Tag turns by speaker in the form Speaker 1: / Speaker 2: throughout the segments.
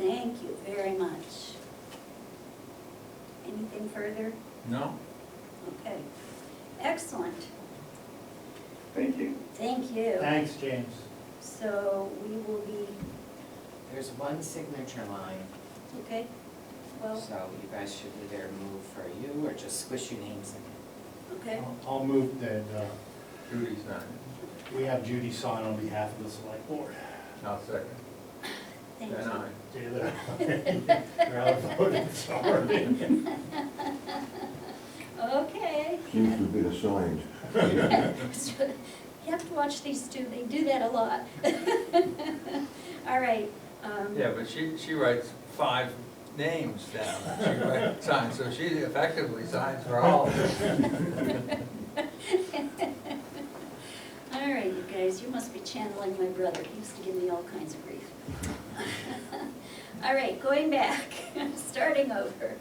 Speaker 1: Thank you very much. Anything further?
Speaker 2: No?
Speaker 1: Okay. Excellent.
Speaker 3: Thank you.
Speaker 1: Thank you.
Speaker 4: Thanks, James.
Speaker 1: So we will be,
Speaker 5: There's one signature line,
Speaker 1: okay? Well,
Speaker 5: so you guys should either move for you or just squish your names in.
Speaker 1: okay.
Speaker 4: I'll- I'll move that uh,
Speaker 2: Judy's not in.
Speaker 4: we have Judy sign on behalf of the select board.
Speaker 2: I'll second.
Speaker 1: Thank
Speaker 2: Then
Speaker 1: you.
Speaker 2: I.
Speaker 4: Taylor, you're outvoted, sorry.
Speaker 1: Okay.
Speaker 6: Seems to be assigned.
Speaker 1: You have to watch these two, they do that a lot. All right. um,
Speaker 2: Yeah, but she, she writes five names down. that She writes- signs, so she effectively signs for all. of them.
Speaker 1: All right, you guys, you must be channeling my brother. He used to give me all kinds of grief. All right, going back, starting over.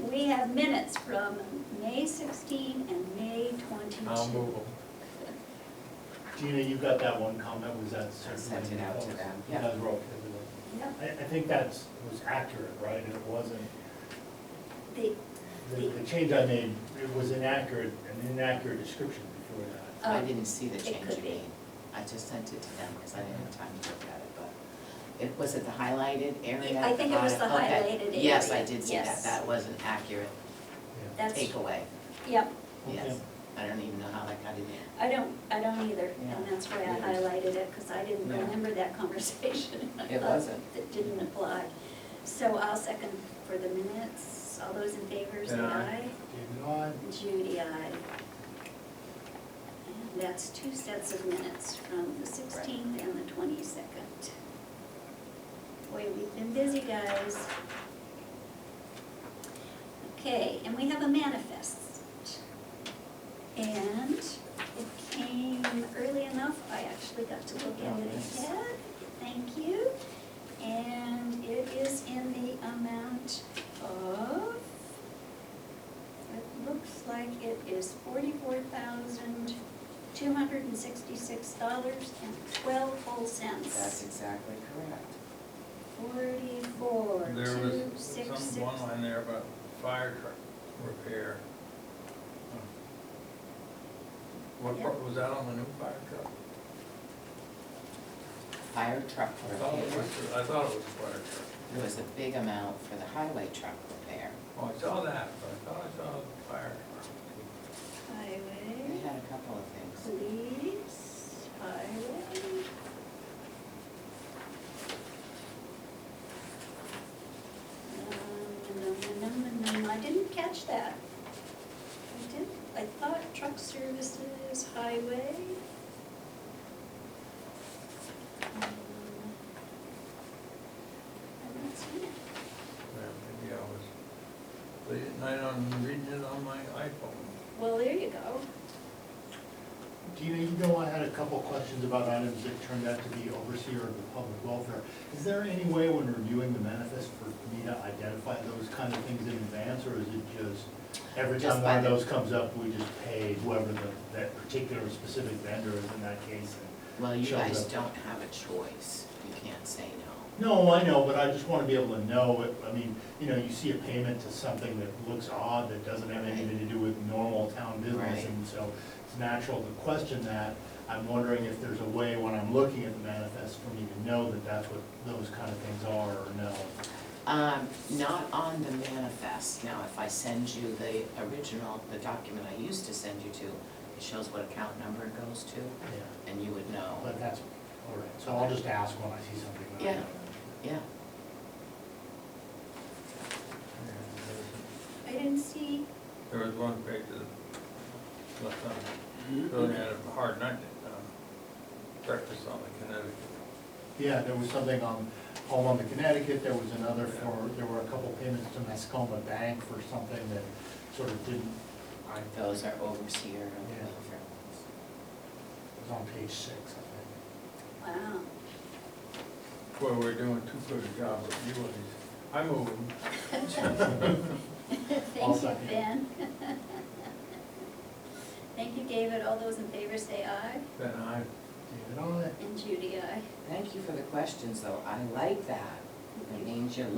Speaker 1: We have minutes from May 16 and May 22.
Speaker 2: I'll move them.
Speaker 4: Gina, you got that one comment, was that
Speaker 5: I
Speaker 4: certainly?
Speaker 5: sent it out to them,
Speaker 4: You
Speaker 5: yeah.
Speaker 4: guys were okay with
Speaker 1: Yep,
Speaker 4: it. I, I think that's, was accurate, right? It wasn't,
Speaker 1: the-
Speaker 4: the, the change I made, it was inaccurate, an inaccurate description before that.
Speaker 5: I
Speaker 1: Oh,
Speaker 5: didn't see the
Speaker 1: it
Speaker 5: change
Speaker 1: could
Speaker 5: you
Speaker 1: be.
Speaker 5: made. I just sent it to them because I didn't have time to look at it, but it, was it the highlighted area?
Speaker 1: I
Speaker 5: at the
Speaker 1: think it was
Speaker 5: bottom?
Speaker 1: the
Speaker 5: Okay.
Speaker 1: highlighted
Speaker 5: Yes,
Speaker 1: area,
Speaker 5: I did see
Speaker 1: yes.
Speaker 5: that. That was an accurate
Speaker 4: Yeah.
Speaker 1: that's,
Speaker 5: takeaway,
Speaker 1: yep,
Speaker 5: yes.
Speaker 4: Okay.
Speaker 5: I don't even know how that got in there.
Speaker 1: I don't, I don't either. And
Speaker 5: Yeah.
Speaker 1: that's why I
Speaker 5: Yeah.
Speaker 1: highlighted it, because I didn't
Speaker 5: Yeah.
Speaker 1: remember that conversation.
Speaker 5: It wasn't.
Speaker 1: That didn't apply. So I'll second for the minutes. All those in favor, say
Speaker 2: Aye.
Speaker 1: aye.
Speaker 4: David, aye?
Speaker 1: Judy, aye. And that's two sets of minutes from the 16th and the 22nd. Boy, we've been busy, guys. Okay, and we have a manifest. And it came early enough, I actually got to look at it
Speaker 5: Nice.
Speaker 1: ahead. Thank you. And it is in the amount of, it looks like it is forty-four thousand, two hundred and sixty-six dollars and twelve whole
Speaker 5: That's
Speaker 1: cents.
Speaker 5: exactly correct.
Speaker 1: Forty-four,
Speaker 2: There was
Speaker 1: two, six, six.
Speaker 2: some, one line there about fire truck repair. What, part- was that on the new fire truck?
Speaker 5: Fire truck
Speaker 2: I thought it
Speaker 5: repair.
Speaker 2: was, I thought it was fire truck.
Speaker 5: There was a big amount for the highway truck repair.
Speaker 2: Oh, I saw that, but I thought I saw the fire truck.
Speaker 5: We
Speaker 1: Highway,
Speaker 5: had a couple of things.
Speaker 1: police, highway. Um, num, num, num, num, I didn't catch that. I did, I thought truck services, highway. Um, I haven't seen it.
Speaker 2: Yeah, Maybe I was late at night on reading it on my iPhone.
Speaker 1: Well, there you go.
Speaker 4: Gina, you know, I had a couple of questions about items that turned out to be overseer of the public welfare. Is there any way when reviewing the manifest for me to identify those kind of things in advance, or is it just every
Speaker 5: Just
Speaker 4: time
Speaker 5: by
Speaker 4: one of
Speaker 5: the-
Speaker 4: those comes up, we just pay whoever the, that particular specific vendor is in that case?
Speaker 5: Well, you
Speaker 4: Shows
Speaker 5: guys
Speaker 4: up.
Speaker 5: don't have a choice. You can't say no.
Speaker 4: No, I know, but I just wanna be able to know, it. I mean, you know, you see a payment to something that looks odd, that doesn't have anything to do with normal town business,
Speaker 5: Right.
Speaker 4: and so it's natural to question that. I'm wondering if there's a way, when I'm looking at the manifest, for me to know that that's what those kind of things are, or no.
Speaker 5: Um, not on the manifest. Now, if I send you the original, the document I used to send you to, it shows what account number it goes to,
Speaker 4: Yeah,
Speaker 5: and you would know.
Speaker 4: But that's, all right, so I'll just ask when I see something. that I
Speaker 5: Yeah.
Speaker 4: don't
Speaker 5: Yeah,
Speaker 1: I didn't see,
Speaker 2: There was one page that left on, really had a hard night, um, breakfast on the Connecticut.
Speaker 4: know. Yeah, there was something on, home on the Connecticut, there was another for, there were a couple payments to Mascoma Bank for something that sort of didn't
Speaker 2: I-
Speaker 5: those are overseer of
Speaker 4: Yeah.
Speaker 5: the welfare ones.
Speaker 4: It's on page six, I
Speaker 1: wow.
Speaker 2: Boy, we're doing too good a job with you and these. I move.
Speaker 4: I'll
Speaker 1: Thank you,
Speaker 4: second.
Speaker 1: Ben. Thank you, David. All those in favor say aye,
Speaker 2: Then I,
Speaker 4: think. David, on it.
Speaker 1: and Judy, aye.
Speaker 5: Thank you for the questions, though. I like that. It means you're